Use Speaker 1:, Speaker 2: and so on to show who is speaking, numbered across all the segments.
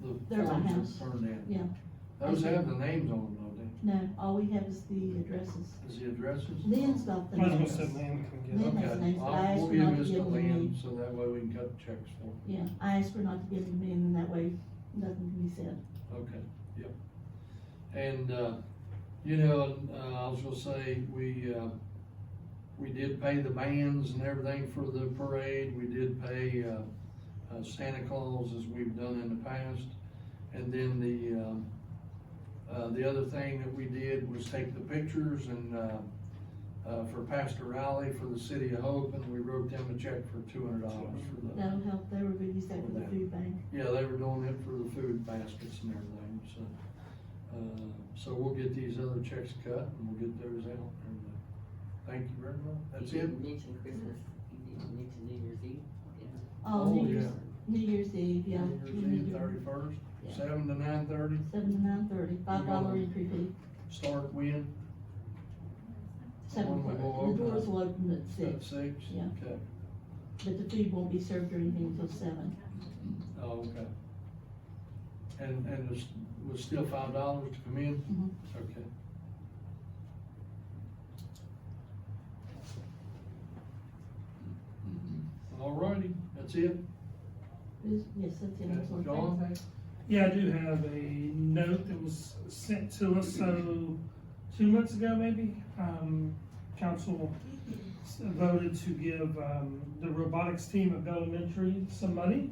Speaker 1: the
Speaker 2: There's a
Speaker 1: farms
Speaker 2: house.
Speaker 1: are burned down.
Speaker 2: Yeah,
Speaker 1: Those have the names on them, don't they?
Speaker 2: no, all we have is the addresses.
Speaker 1: Is the addresses?
Speaker 2: Lynn's got the
Speaker 3: I was gonna
Speaker 2: names.
Speaker 3: say Lynn can get
Speaker 2: Lynn
Speaker 3: it.
Speaker 2: has
Speaker 1: Okay,
Speaker 2: names, but I
Speaker 1: I'll,
Speaker 2: asked
Speaker 1: we'll
Speaker 2: her
Speaker 1: give
Speaker 2: not to
Speaker 1: this
Speaker 2: give
Speaker 1: to
Speaker 2: them
Speaker 1: Lynn,
Speaker 2: in.
Speaker 1: so that way we can cut checks for them.
Speaker 2: Yeah, I asked her not to give them in, and that way, nothing can be said.
Speaker 1: Okay, yep. And, uh, you know, uh, I was gonna say, we, uh, we did pay the bands and everything for the parade, we did pay, uh, uh, Santa Claus as we've done in the past. And then the, um, uh, the other thing that we did was take the pictures and, uh, uh, for Pastor Riley for the City of Hope, and we wrote them a check for two hundred dollars for those.
Speaker 2: That'll help, they were gonna use that for the food bank.
Speaker 1: Yeah, they were doing it for the food baskets and everything, so, uh, so we'll get these other checks cut and we'll get those out. and, uh, Thank you very much, that's
Speaker 4: You
Speaker 1: it.
Speaker 4: didn't mention Christmas, you didn't mention New Year's Eve.
Speaker 2: Oh, New
Speaker 1: yeah.
Speaker 2: Year's, New Year's Eve, yeah.
Speaker 1: New Year's Eve, thirty-first,
Speaker 2: Yeah.
Speaker 1: seven to nine thirty,
Speaker 2: Seven to nine thirty, five dollar entry fee.
Speaker 1: start when,
Speaker 2: Seven,
Speaker 1: When we go
Speaker 2: o'clock. the
Speaker 1: open.
Speaker 2: doors will open at
Speaker 1: at
Speaker 2: six,
Speaker 1: six?
Speaker 2: Yeah.
Speaker 1: Okay,
Speaker 2: but the food won't be served or anything until seven.
Speaker 1: oh, okay. And, and it's, was still five dollars to come in?
Speaker 2: Mhm.
Speaker 1: Okay. All righty, that's it.
Speaker 2: Is- Yes, that's it. that's all.
Speaker 1: John?
Speaker 3: Yeah, I do have a note that was sent to us, so two months ago maybe, um, council s- voted to give, um, the robotics team of elementary some money.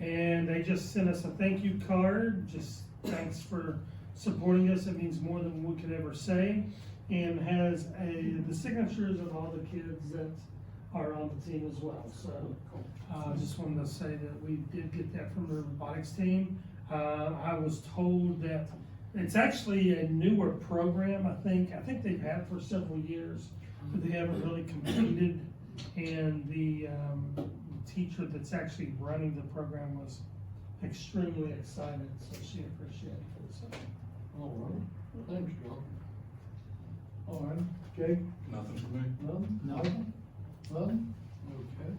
Speaker 3: And they just sent us a thank you card, just thanks for supporting us, it means more than we could ever say. And has a, the signatures of all the kids that are on the team as well, so. Uh, just wanted to say that we did get that from the robotics team. Uh, I was told that it's actually a newer program, I think. I think they've had for several years, but they haven't really completed. And the, um, teacher that's actually running the program was extremely excited, so she appreciated it, so.
Speaker 1: All right, thanks, John. All right, Jake,
Speaker 5: Nothing for me.
Speaker 1: none? Nothing. None? Okay.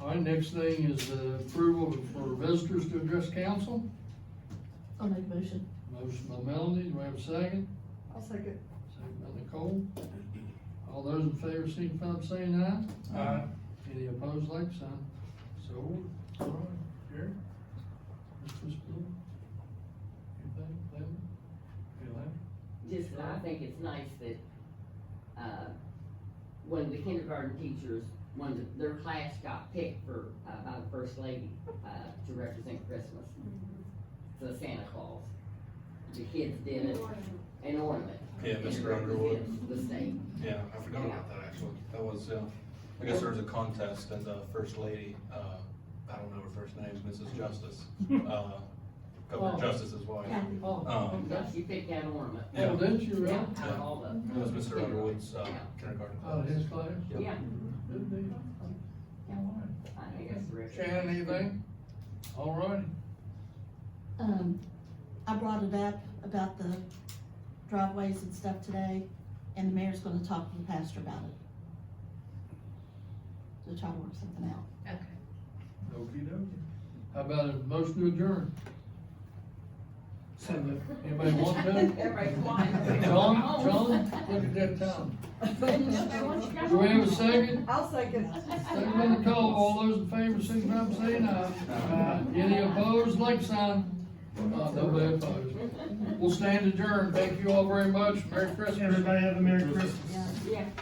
Speaker 1: All right, next thing is uh, approval for visitors to address council.
Speaker 2: I'll make a motion.
Speaker 1: Motion by Melanie, do we have a second?
Speaker 4: I'll second.
Speaker 1: Second by Nicole. All those in favor, signify by saying aye.
Speaker 3: Uh,
Speaker 1: Any opposed, like sign. So, all right, Jerry? Mr. Spill? Anything, Lynn? Any Lynn?
Speaker 4: Just, I think it's nice that, uh, when the kindergarten teachers, when the- their class got picked for, uh, by the first lady, uh, to represent Christmas. So Santa Claus, the kids did it, an Mm-hmm. ornament.
Speaker 5: Yeah,
Speaker 4: and it
Speaker 5: Mr. Underwood.
Speaker 4: represents The state.
Speaker 5: Yeah, I forgot about that actually. That was, uh, I guess there was a contest and the first lady, uh, I don't know her first name, Mrs. Justice, uh,
Speaker 1: Oh.
Speaker 5: Governor Justice's wife.
Speaker 2: Yeah.
Speaker 1: Oh,
Speaker 5: Um,
Speaker 1: okay.
Speaker 4: You picked that ornament.
Speaker 1: Oh,
Speaker 5: Yeah.
Speaker 1: didn't you, really?
Speaker 4: Yeah, out of all the.
Speaker 5: It was Mr. Underwood's, uh, kindergarten
Speaker 1: Oh,
Speaker 5: class.
Speaker 1: his class?
Speaker 5: Yeah.
Speaker 4: Yeah,
Speaker 1: Good deal.
Speaker 4: I think that's terrific.
Speaker 1: Shannon, anything? All righty.
Speaker 2: um, I brought it up about the driveways and stuff today, and the mayor's gonna talk to the pastor about it. To try to work something out.
Speaker 1: Okey dokey. How about a motion to adjourn?
Speaker 3: so the-
Speaker 1: Anybody want to?
Speaker 4: Everybody's flying.
Speaker 1: John, John, look at that time.
Speaker 4: Nobody wants to go
Speaker 1: Do we have a
Speaker 4: home.
Speaker 1: second?
Speaker 6: I'll second.
Speaker 1: Second by Nicole, all those in favor, signify by saying aye. Aye. Any opposed, like sign? Uh, nobody opposed. We'll stand adjourned. Thank you all very much. Merry Christmas.
Speaker 3: Everybody have a Merry Christmas.
Speaker 2: Yeah.
Speaker 4: Yeah.